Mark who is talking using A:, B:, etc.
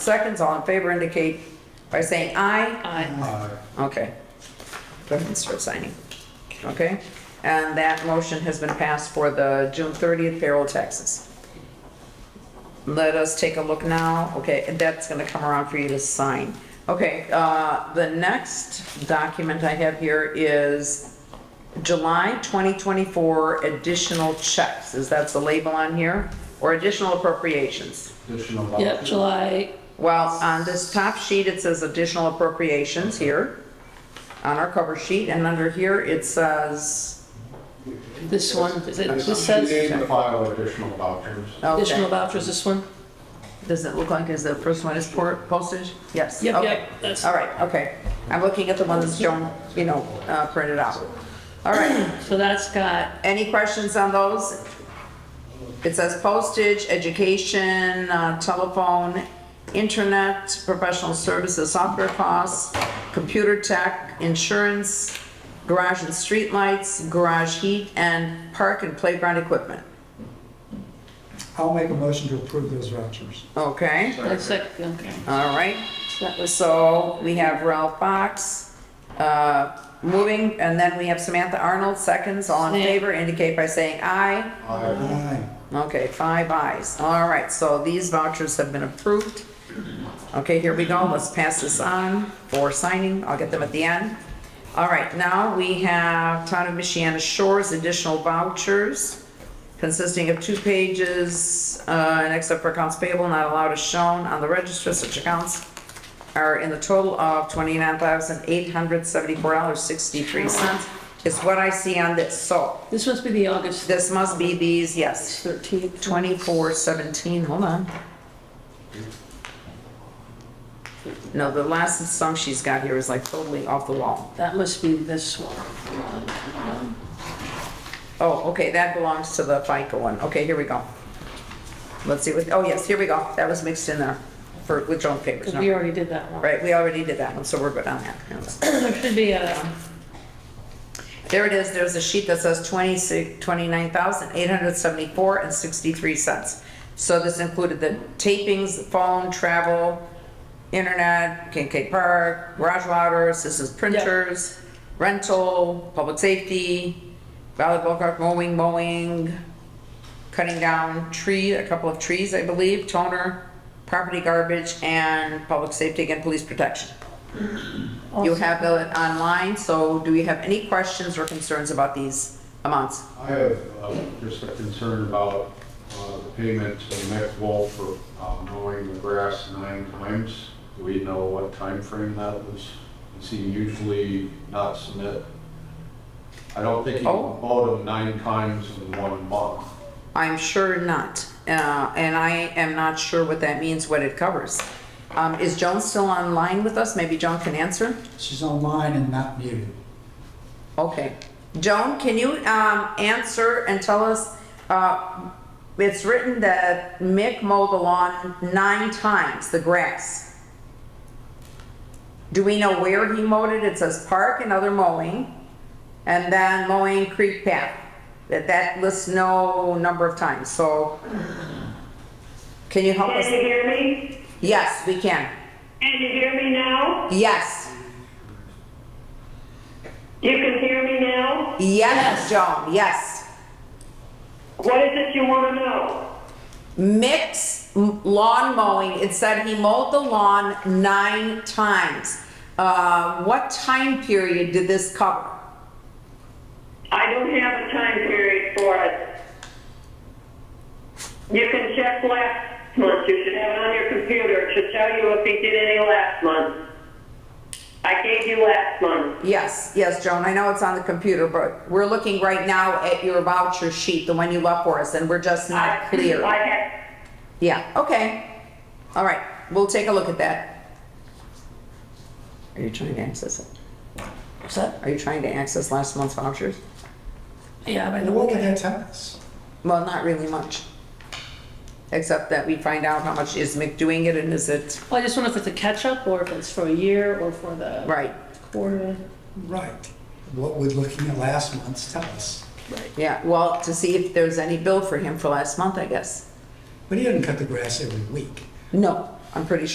A: seconds, all in favor indicate by saying aye.
B: Aye.
C: Aye.
A: Okay. Go ahead and start signing. Okay? And that motion has been passed for the June 30th payroll taxes. Let us take a look now. Okay, and that's gonna come around for you to sign. Okay, uh, the next document I have here is July 2024 additional checks. Is that the label on here? Or additional appropriations?
C: Additional
B: Yep,
C: vouchers.
B: July,
A: Well, on this top sheet, it says additional appropriations here, on our cover sheet, and under here, it says,
B: this one, is it,
C: And
B: this
C: it's on sheet eight
B: says
C: in the file, additional vouchers.
B: additional
A: okay.
B: vouchers, this one?
A: Does it look like is the first one is por- postage? Yes.
B: Yep,
A: okay.
B: yep, that's-
A: All right, okay. I'm looking at the one that's shown, you know, uh, printed out. All right,
B: So that's got,
A: any questions on those? It says postage, education, uh, telephone, internet, professional services, software costs, computer tech, insurance, garage and street lights, garage heat, and park and playground equipment.
D: I'll make a motion to approve those vouchers.
A: Okay,
B: that's like, okay,
A: all right.
B: so that was,
A: So we have Ralph Box, uh, moving, and then we have Samantha Arnold, seconds. All in
B: Yeah.
A: favor indicate by saying aye.
C: Aye.
D: Aye.
A: Okay, five ayes. All right, so these vouchers have been approved. Okay, here we go. Let's pass this on for signing. I'll get them at the end. All right, now we have Town of Michiana Shores additional vouchers consisting of two pages, uh, and except for accounts payable not allowed as shown on the register, such accounts are in the total of twenty-nine thousand eight hundred seventy-four dollars sixty-three cents is what I see on this. So
B: this must be the August
A: this must be these, yes,
B: thirteenth.
A: 2417, hold on. No, the last song she's got here is like totally off the wall.
B: That must be this one.
A: Oh, okay, that belongs to the FICA one. Okay, here we go. Let's see what, oh yes, here we go. That was mixed in there for, with joint papers.
B: Because
A: no.
B: we already did that one.
A: Right, we already did that one, so we're good on that.
B: There should be uh, a,
A: There it is, there's a sheet that says 26 29,874 and 63 cents. So this included the tapings, phone, travel, internet, Kincaid Park, garage waters, this is printers, rental, public safety, volleyball court, mowing, mowing, cutting down tree, a couple of trees, I believe, toner, property garbage, and public safety and police protection. You have it online, so do we have any questions or concerns about these amounts?
C: I have uh, just a concern about uh, the payment to Mac Wolf for uh, mowing the grass nine times. Do we know what time frame that was? Does he usually not submit? I don't think he
A: Oh.
C: mowed them nine times in one month.
A: I'm sure not, uh, and I am not sure what that means, what it covers. Um, is Joan still online with us? Maybe Joan can answer?
D: She's online and not muted.
A: Okay. Joan, can you, um, answer and tell us, uh, it's written that Mick mowed the lawn nine times, the grass. Do we know where he mowed it? It says park and other mowing, and then mowing creek path. That, that lists no number of times, so. Can you help us?
E: Can you hear me?
A: Yes, we can.
E: Can you hear me now?
A: Yes,
E: You can hear me now?
A: yes, Joan, yes.
E: What is it you want to know?
A: Mix lawn mowing. It said he mowed the lawn nine times. Uh, what time period did this cover?
E: I don't have a time period for it. You can check last month. You should have it on your computer. It should tell you if he did any last month. I gave you last month.
A: Yes, yes, Joan, I know it's on the computer, but we're looking right now at your voucher sheet, the one you left for us, and we're just
E: I
A: not clear.
E: I had,
A: Yeah, okay. All right, we'll take a look at that. Are you trying to access it?
B: what's that?
A: Are you trying to access last month's vouchers?
B: Yeah, by the
D: What did
B: way.
D: that tell us?
A: Well, not really much. Except that we find out how much is Mick doing it and is it,
B: Well, I just wonder if it's a catch-up or if it's for a year or for the
A: right.
B: quarter.
D: Right. What would looking at last month's tell us?
A: Yeah, well, to see if there's any bill for him for last month, I guess.
D: But he didn't cut the grass every week.
A: No, I'm pretty sure.